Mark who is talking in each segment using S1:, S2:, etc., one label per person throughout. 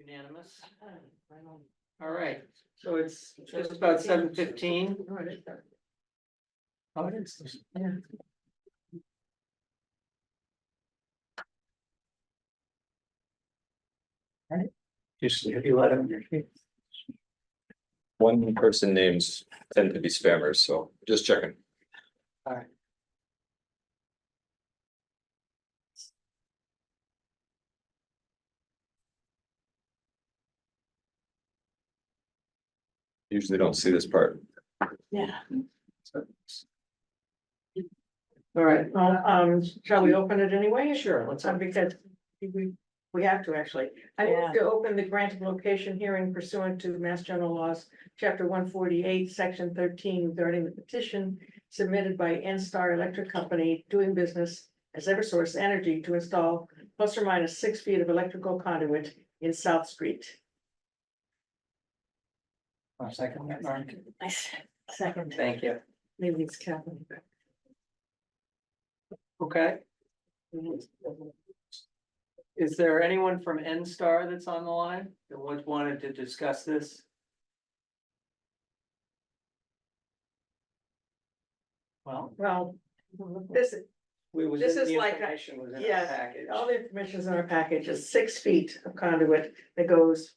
S1: Unanimous. All right, so it's just about seven fifteen.
S2: Just if you let them.
S3: One person names tend to be spammers, so just checking. Usually don't see this part.
S1: Yeah. All right, well, um, shall we open it anyway? Sure, let's. Because we, we have to actually. I move to open the grant of location hearing pursuant to Mass General Laws, Chapter one forty-eight, Section thirteen regarding the petition submitted by N Star Electric Company doing business as Eversource Energy to install plus or minus six feet of electrical conduit in South Street.
S2: Second, that, Mark.
S1: Second.
S2: Thank you.
S1: Maybe it's Kathleen.
S2: Okay,
S1: Is there anyone from N Star that's on the line that would wanted to discuss this? Well. Well, this,
S2: we was.
S1: This
S2: in-
S1: is
S2: the
S1: like a-
S2: information was in our
S1: yeah,
S2: package.
S1: all the information is in our package, is six feet of conduit that goes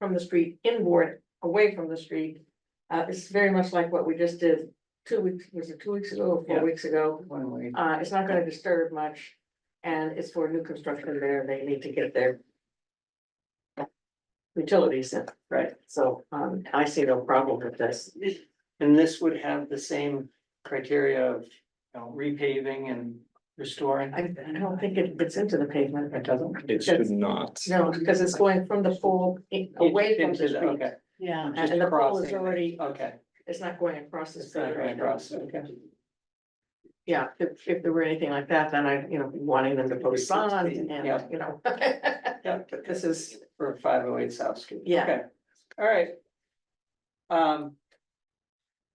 S1: from the street inboard, away from the street. Uh, it's very much like what we just did two weeks, was it two weeks ago or
S2: Yeah.
S1: four weeks ago?
S2: One way.
S1: Uh, it's not gonna disturb much, and it's for new construction there, they need to get their. Utilities in, right, so, um, I see no problem with this,
S2: And this would have the same criteria of, you know, repaving and restoring.
S1: I, I don't think it gets into the pavement.
S2: It doesn't?
S3: It should not.
S1: No, because it's going from the pool in- away from
S2: Into
S1: the street,
S2: Okay,
S4: Yeah,
S1: and and the pool is already,
S2: okay.
S1: it's not going across the
S2: It's not
S1: street
S2: going
S1: right
S2: across,
S1: now.
S2: okay.
S1: Yeah, if, if there were anything like that, then I, you know, wanting them to post signs and,
S2: Yeah.
S1: you know.
S2: Yeah, but this is for five oh eight South Street.
S1: Yeah.
S2: Okay. All right. Um,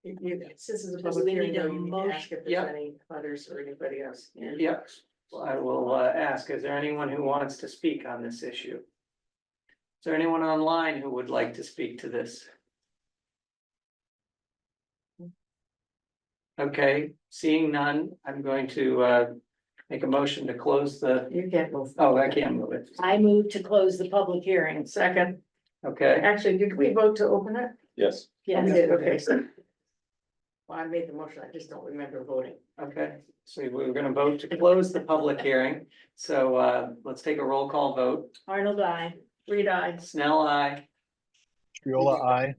S1: You- you- Since it's a
S4: So
S1: public
S4: we
S1: hearing,
S4: need a
S1: though, you can ask if there's
S2: motion.
S1: any others or anybody else.
S2: Yep, Well, I will uh, ask, is there anyone who wants to speak on this issue? Is there anyone online who would like to speak to this? Okay, seeing none, I'm going to uh, make a motion to close the,
S1: You can't move.
S2: oh, I can't move it.
S4: I move to close the public hearing.
S1: Second,
S2: Okay,
S1: actually, did we vote to open it?
S3: Yes.
S1: We
S4: Yes,
S1: did, okay. so- Well, I made the motion, I just don't remember voting.
S2: okay, so we were gonna vote to close the public hearing, so uh, let's take a roll call vote.
S4: Arnold, I.
S1: Reed, I,
S2: Snell, I,
S5: Triola, I.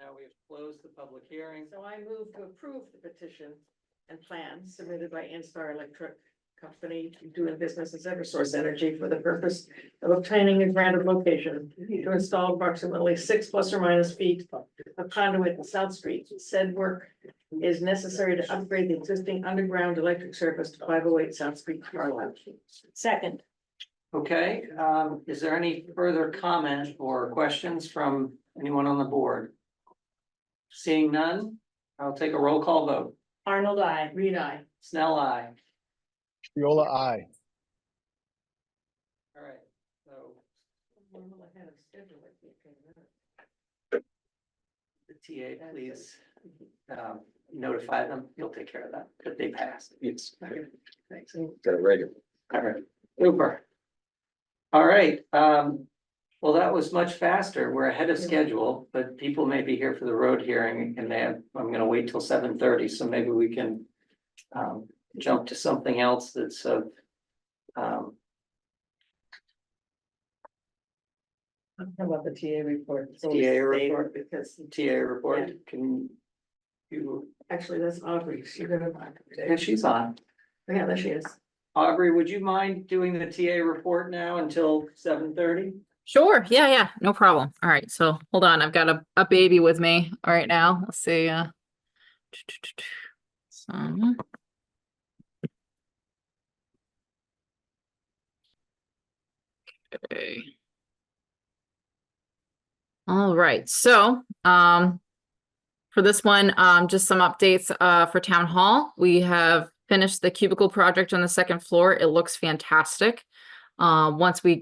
S2: now we've closed the public hearing.
S1: so I move to approve the petition and plan submitted by Instar Electric Company doing business as Eversource Energy for the purpose of obtaining a grant of location to install approximately six plus or minus feet of conduit in South Street. Said work is necessary to upgrade the existing underground electric service to five oh eight South Street, Carlisle.
S4: Second,
S2: Okay, um, is there any further comment or questions from anyone on the board? Seeing none, I'll take a roll call vote.
S4: Arnold, I.
S1: Reed, I.
S2: Snell, I.
S5: Triola, I.
S2: All right, so the TA, please, um, notify them. You'll take care of that, that they passed.
S3: Yes.
S2: Okay, Thanks.
S3: Got it right.
S2: All right, super. All right, um, well, that was much faster. We're ahead of schedule, but people may be here for the road hearing and they have, I'm gonna wait till seven thirty, so maybe we can. Um, jump to something else that's of. Um,
S1: How about the TA report? It's always
S2: TA
S1: stayed
S2: report.
S1: Because
S2: TA report, can. You,
S1: actually, that's Audrey, you're gonna.
S2: and she's on.
S1: Yeah, there she is.
S2: Aubrey, would you mind doing the TA report now until seven thirty?
S6: Sure. Yeah, yeah, no problem. All right, so hold on, I've got a, a baby with me All right now. Let's see, uh. So. Okay. All right, so, um. For this one, um, just some updates, uh, for town hall. We have finished the cubicle project on the second floor. It looks fantastic. Uh, once we